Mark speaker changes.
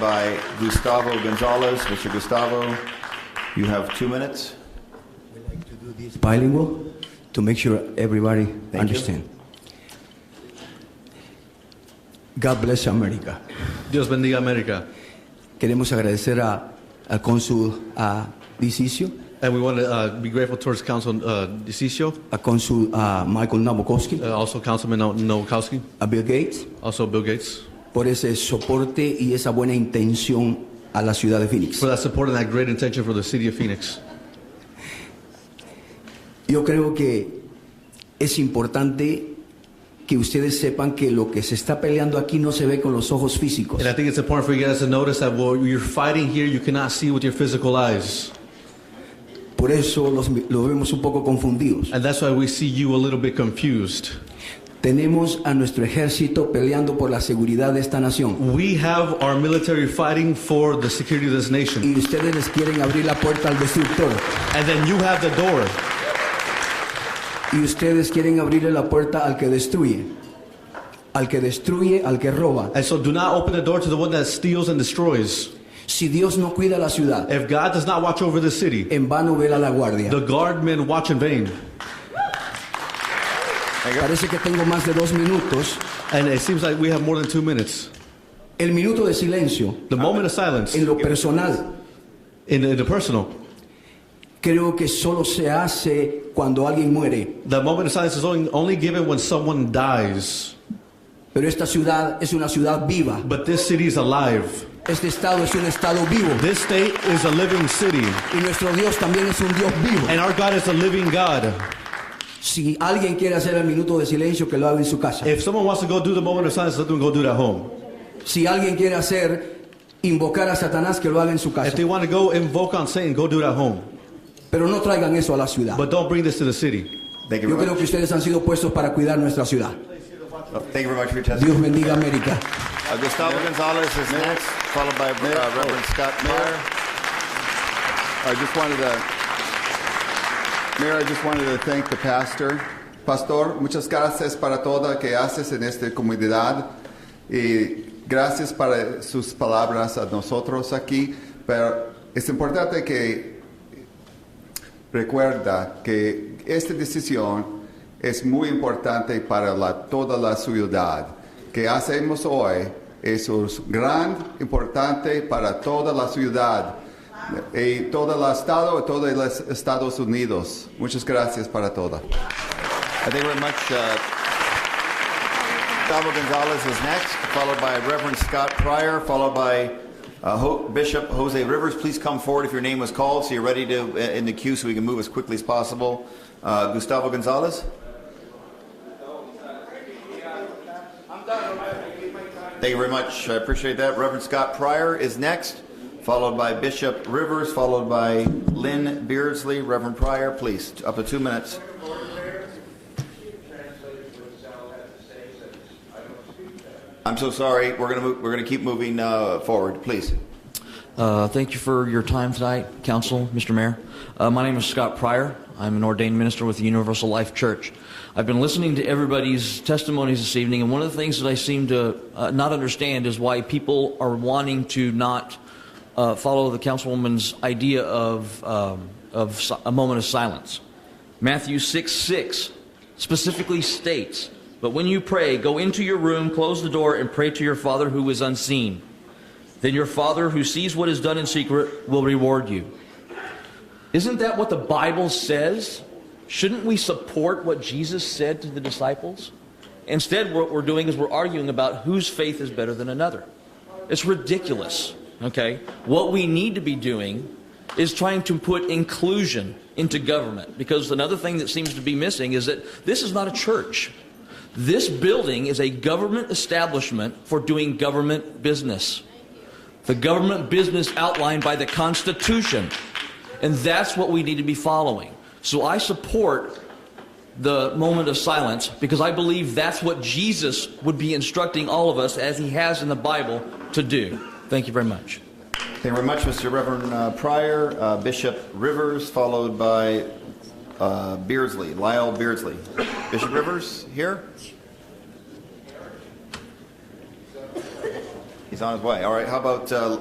Speaker 1: by Gustavo Gonzalez. Mr. Gustavo, you have two minutes.
Speaker 2: bilingual to make sure everybody understand. God bless America.
Speaker 3: Dios bendiga América.
Speaker 2: Queremos agradecer a, al cónsul a Dicicio,
Speaker 3: And we want to uh, be grateful towards Council uh, DeCiccio,
Speaker 2: a cónsul a Michael Nabokowski,
Speaker 3: uh, also Councilman No- Nowakowski,
Speaker 2: a Bill Gates,
Speaker 3: also Bill Gates,
Speaker 2: por ese soporte y esa buena intención a la ciudad de
Speaker 3: for
Speaker 2: Phoenix.
Speaker 3: that support and that great intention for the city of Phoenix.
Speaker 2: Yo creo que es importante que ustedes sepan que lo que se está peleando aquí no se ve con los ojos físicos.
Speaker 3: And I think it's important for you guys to notice that what you're fighting here, you cannot see with your physical eyes.
Speaker 2: Por eso los, los vemos un poco confundidos.
Speaker 3: And that's why we see you a little bit confused.
Speaker 2: Tenemos a nuestro ejército peleando por la seguridad de esta nación.
Speaker 3: We have our military fighting for the security of this nation.
Speaker 2: Y ustedes les quieren abrir la puerta al destructor.
Speaker 3: And then you have the door.
Speaker 2: Y ustedes quieren abrirle la puerta al que destruye. Al que destruye, al que roba.
Speaker 3: And so do not open the door to the one that steals and destroys.
Speaker 2: Si Dios no cuida la ciudad,
Speaker 3: If God does not watch over the city,
Speaker 2: en vano vela la guardia.
Speaker 3: the guardmen watch in vain.
Speaker 2: Parece que tengo más de dos minutos.
Speaker 3: And it seems like we have more than two minutes.
Speaker 2: El minuto de silencio,
Speaker 3: The moment of silence
Speaker 2: en lo personal,
Speaker 3: in, in the personal.
Speaker 2: creo que solo se hace cuando alguien muere.
Speaker 3: The moment of silence is only, only given when someone dies.
Speaker 2: Pero esta ciudad es una ciudad viva.
Speaker 3: But this city is alive.
Speaker 2: Este estado es un estado vivo.
Speaker 3: This state is a living city.
Speaker 2: Y nuestro Dios también es un Dios vivo.
Speaker 3: And our God is a living God.
Speaker 2: Si alguien quiere hacer el minuto de silencio, que lo haga en su casa.
Speaker 3: If someone wants to go do the moment of silence, let them go do it at home.
Speaker 2: Si alguien quiere hacer invocar a Satanás, que lo haga en su
Speaker 3: If
Speaker 2: casa.
Speaker 3: they want to go invoke on Satan, go do it at home.
Speaker 2: Pero no traigan eso a la ciudad.
Speaker 3: But don't bring this to the city.
Speaker 1: Thank you
Speaker 2: Yo
Speaker 1: very
Speaker 2: creo
Speaker 1: much.
Speaker 2: que ustedes han sido puestos para cuidar nuestra ciudad.
Speaker 1: Oh, Thank you very much for your testimony.
Speaker 2: Dios bendiga América.
Speaker 1: Uh, Gustavo Gonzalez is next, followed by uh, Reverend Scott Mayer.
Speaker 4: I just wanted to, Mayor, I just wanted to thank the pastor. Pastor, muchas gracias para todo que haces en esta comunidad y gracias para sus palabras a nosotros aquí. Pero es importante que recuerda que esta decisión es muy importante para la- toda la ciudad. Que hacemos hoy es un gran importante para toda la ciudad eh, y todo el estado y todos los Estados Unidos. Muchas gracias para todo.
Speaker 1: Uh, Thank you very much. uh, Gustavo Gonzalez is next, followed by Reverend Scott Pryor, followed by uh, Ho- Bishop Jose Rivers. Please come forward if your name was called, so you're ready to uh, in the queue, so we can move as quickly as possible. Uh, Gustavo Gonzalez. Thank you very much. I appreciate that. Reverend Scott Pryor is next, followed by Bishop Rivers, followed by Lynn Beardsley. Reverend Pryor, please, up to two minutes. I'm so sorry. We're gonna move, we're gonna keep moving uh, forward, please.
Speaker 5: Uh, Thank you for your time tonight, Council, Mr. Mayor. Uh, My name is Scott Pryor. I'm an ordained minister with the Universal Life Church. I've been listening to everybody's testimonies this evening, and one of the things that I seem to uh, not understand is why people are wanting to not uh, follow the councilwoman's idea of, um, of si- a moment of silence. Matthew 6 6 specifically states, But when you pray, go into your room, close the door, and pray to your Father who is unseen then your Father who sees what is done in secret will reward you. Isn't that what the Bible says? Shouldn't we support what Jesus said to the disciples? Instead, what we're doing is we're arguing about whose faith is better than another. It's ridiculous, okay? What we need to be doing is trying to put inclusion into government because another thing that seems to be missing is that this is not a church. This building is a government establishment for doing government business the government business outlined by the Constitution. And that's what we need to be following. So I support the moment of silence because I believe that's what Jesus would be instructing all of us, as he has in the Bible, to do. Thank you very much.
Speaker 1: Thank you very much, Mr. Reverend uh, Pryor, uh, Bishop Rivers, followed by uh, Beardsley, Lyle Beardsley. Bishop Rivers here. He's on his way. All right, how about uh,